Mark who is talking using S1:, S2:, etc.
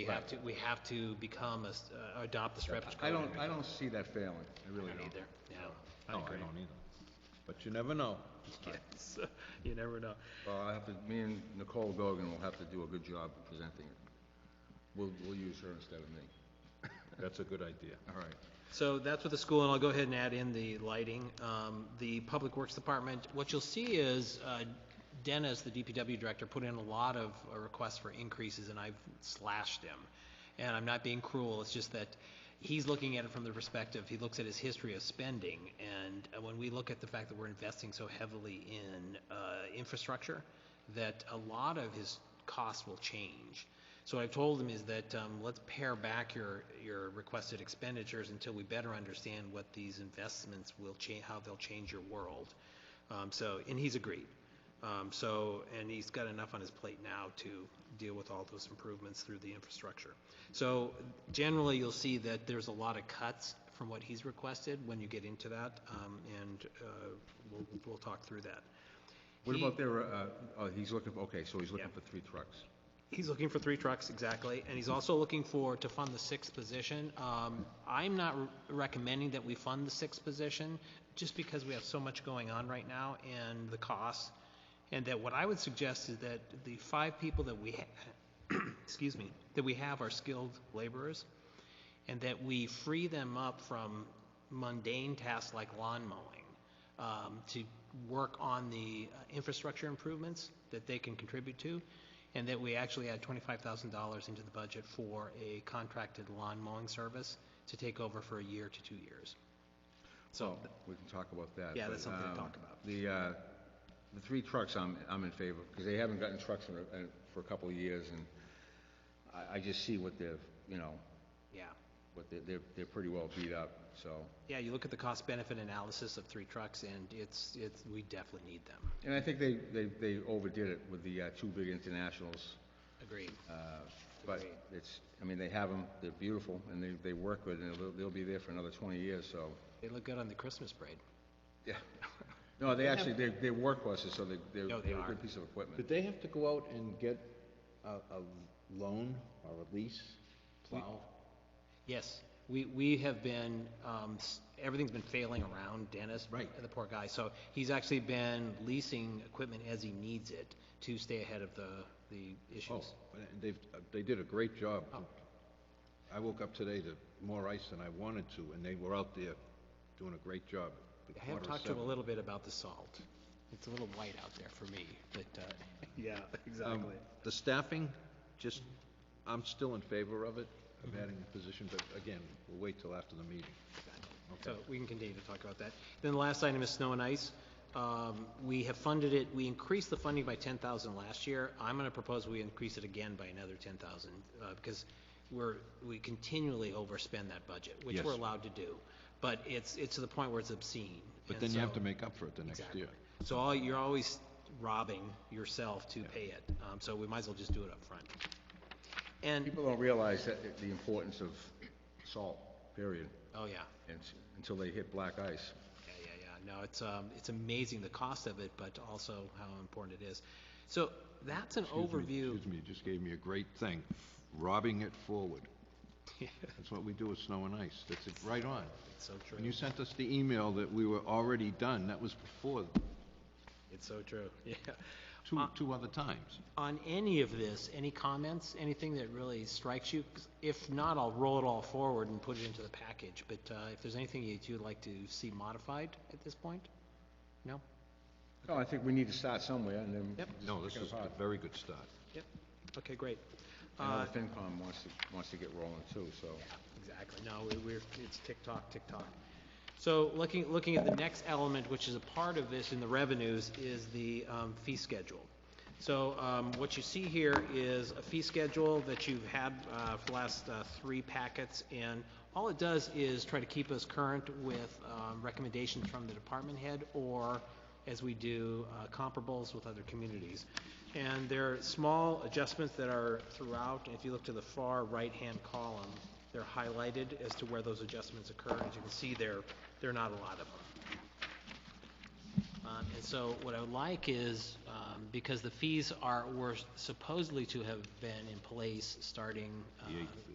S1: have
S2: Right.
S1: to, we have to become, a s- uh, adopt the Stratford
S2: I
S1: Code.
S2: don't, I don't see that failing, I really don't.
S1: Either, no.
S2: No, I don't either. But you never know.
S1: Yes, you never know.
S2: Well, I have to, me and Nicole Gogan will have to do a good job presenting it. We'll, we'll use her instead of me.
S3: That's a good idea.
S2: All right.
S1: So that's with the school, and I'll go ahead and add in the lighting. Um, The Public Works Department, what you'll see is uh, Dennis, the DPW director, put in a lot of uh, requests for increases, and I've slashed him. And I'm not being cruel, it's just that he's looking at it from the perspective, he looks at his history of spending, and uh, when we look at the fact that we're investing so heavily in uh, infrastructure, that a lot of his costs will change. So what I've told them is that, um, let's pare back your, your requested expenditures until we better understand what these investments will change, how they'll change your world. Um, so, and he's agreed. Um, so, and he's got enough on his plate now to deal with all those improvements through the infrastructure. So generally, you'll see that there's a lot of cuts from what he's requested when you get into that, um, and, uh, we'll, we'll talk through that.
S2: What
S1: He-
S2: about their, uh, oh, he's looking, for okay, so he's looking
S1: Yeah.
S2: for three trucks.
S1: He's looking for three trucks, exactly, and he's also looking for, to fund the sixth position. Um, I'm not re- recommending that we fund the sixth position, just because we have so much going on right now and the costs. And that what I would suggest is that the five people that we, ha- excuse me, that we have are skilled laborers, and that we free them up from mundane tasks like lawn mowing um, to work on the uh, infrastructure improvements that they can contribute to, and that we actually add $25,000 into the budget for a contracted lawn mowing service to take over for a year to two years.
S2: So. We can talk about that.
S1: Yeah,
S2: but,
S1: that's something to
S2: um,
S1: talk about.
S2: The, uh, the three trucks, I'm, I'm in favor, because they haven't gotten trucks in, a- in- for a couple of years, and I, I just see what they've, you know,
S1: Yeah.
S2: what they, they're, they're pretty well beat up, so.
S1: Yeah, you look at the cost-benefit analysis of three trucks, and it's, it's, we definitely need them.
S2: And I think they, they, they overdid it with the, uh, two big internationals,
S1: Agreed.
S2: uh, but
S1: Agreed.
S2: it's, I mean, they have them, they're beautiful, and they, they work with, it, and they'll, they'll be there for another twenty years, so.
S1: They look good on the Christmas parade.
S2: Yeah. No, they actually, they're, they're workhorses, so they, they're,
S1: No, they
S2: they're a
S1: are.
S2: good piece of equipment.
S3: Did they have to go out and get a, a loan or a lease plow?
S1: Yes, we, we have been, um, s- everything's been failing around Dennis.
S3: Right.
S1: The poor guy, so he's actually been leasing equipment as he needs it to stay ahead of the, the
S3: Oh,
S1: issues.
S3: and they've, they did a great job. I woke up today to more ice than I wanted to, and they were out there doing a great job. at
S1: I have
S3: quarter
S1: talked to him a
S3: seven.
S1: little bit about the salt. It's a little white out there for me, but, uh, yeah, exactly.
S3: Um, The staffing, just, I'm still in favor of it, of
S1: Mm-hmm.
S3: adding a position, but again, we'll wait till after the meeting.
S1: So we can continue to talk about that. Then the last item is snow and ice. Um, We have funded it, we increased the funding by 10,000 last year. I'm going to propose we increase it again by another 10,000 uh, because we're, we continually overspend that budget, which
S3: Yes.
S1: we're allowed to do. But it's, it's to the point where it's obscene.
S3: But
S1: And
S3: then you have
S1: so-
S3: to make up for it the next
S1: Exactly.
S3: year.
S1: So all, you're always robbing yourself to pay it. Um, So we might as well just do it up front. And,
S2: People don't realize that, the- the importance of salt, period,
S1: oh, yeah.
S2: and, s- until they hit black ice.
S1: Yeah, yeah, yeah. No, it's, um, it's amazing the cost of it, but also how important it is. So that's an
S3: Excuse me,
S1: overview.
S3: Excuse me, you just gave me a great thing, robbing it forward.
S1: Yeah,
S3: That's what we do with snow and ice, that's it, right on.
S1: It's so
S3: When
S1: true.
S3: you sent us the email that we were already done, that was before,
S1: It's so true. Yeah.
S3: two, two other times.
S1: On any of this, any comments, anything that really strikes you? 'Cause If not, I'll roll it all forward and put it into the package. But, uh, if there's anything that you'd like to see modified at this point? No?
S2: No, I think we need to start somewhere, and then.
S1: Yep.
S2: just
S3: No,
S2: pick
S3: this
S2: it
S3: is
S2: apart.
S3: a very good start.
S1: Yep. Okay, great.
S2: I know
S1: Uh,
S2: the FinCom wants to, wants to get rolling too, so.
S1: Exactly, no, we- we're, it's tick-tock, tick-tock. So looking, looking at the next element, which is a part of this in the revenues, is the um, fee schedule. So um, what you see here is a fee schedule that you've had uh, for the last uh, three packets, and all it does is try to keep us current with um, recommendations from the department head, or as we do uh, comparables with other communities. And there are small adjustments that are throughout, if you look to the far right-hand column, they're highlighted as to where those adjustments occur. As you can see, there, there are not a lot of them. Um, And so what I would like is, um, because the fees are, were supposedly to have been in place starting uh,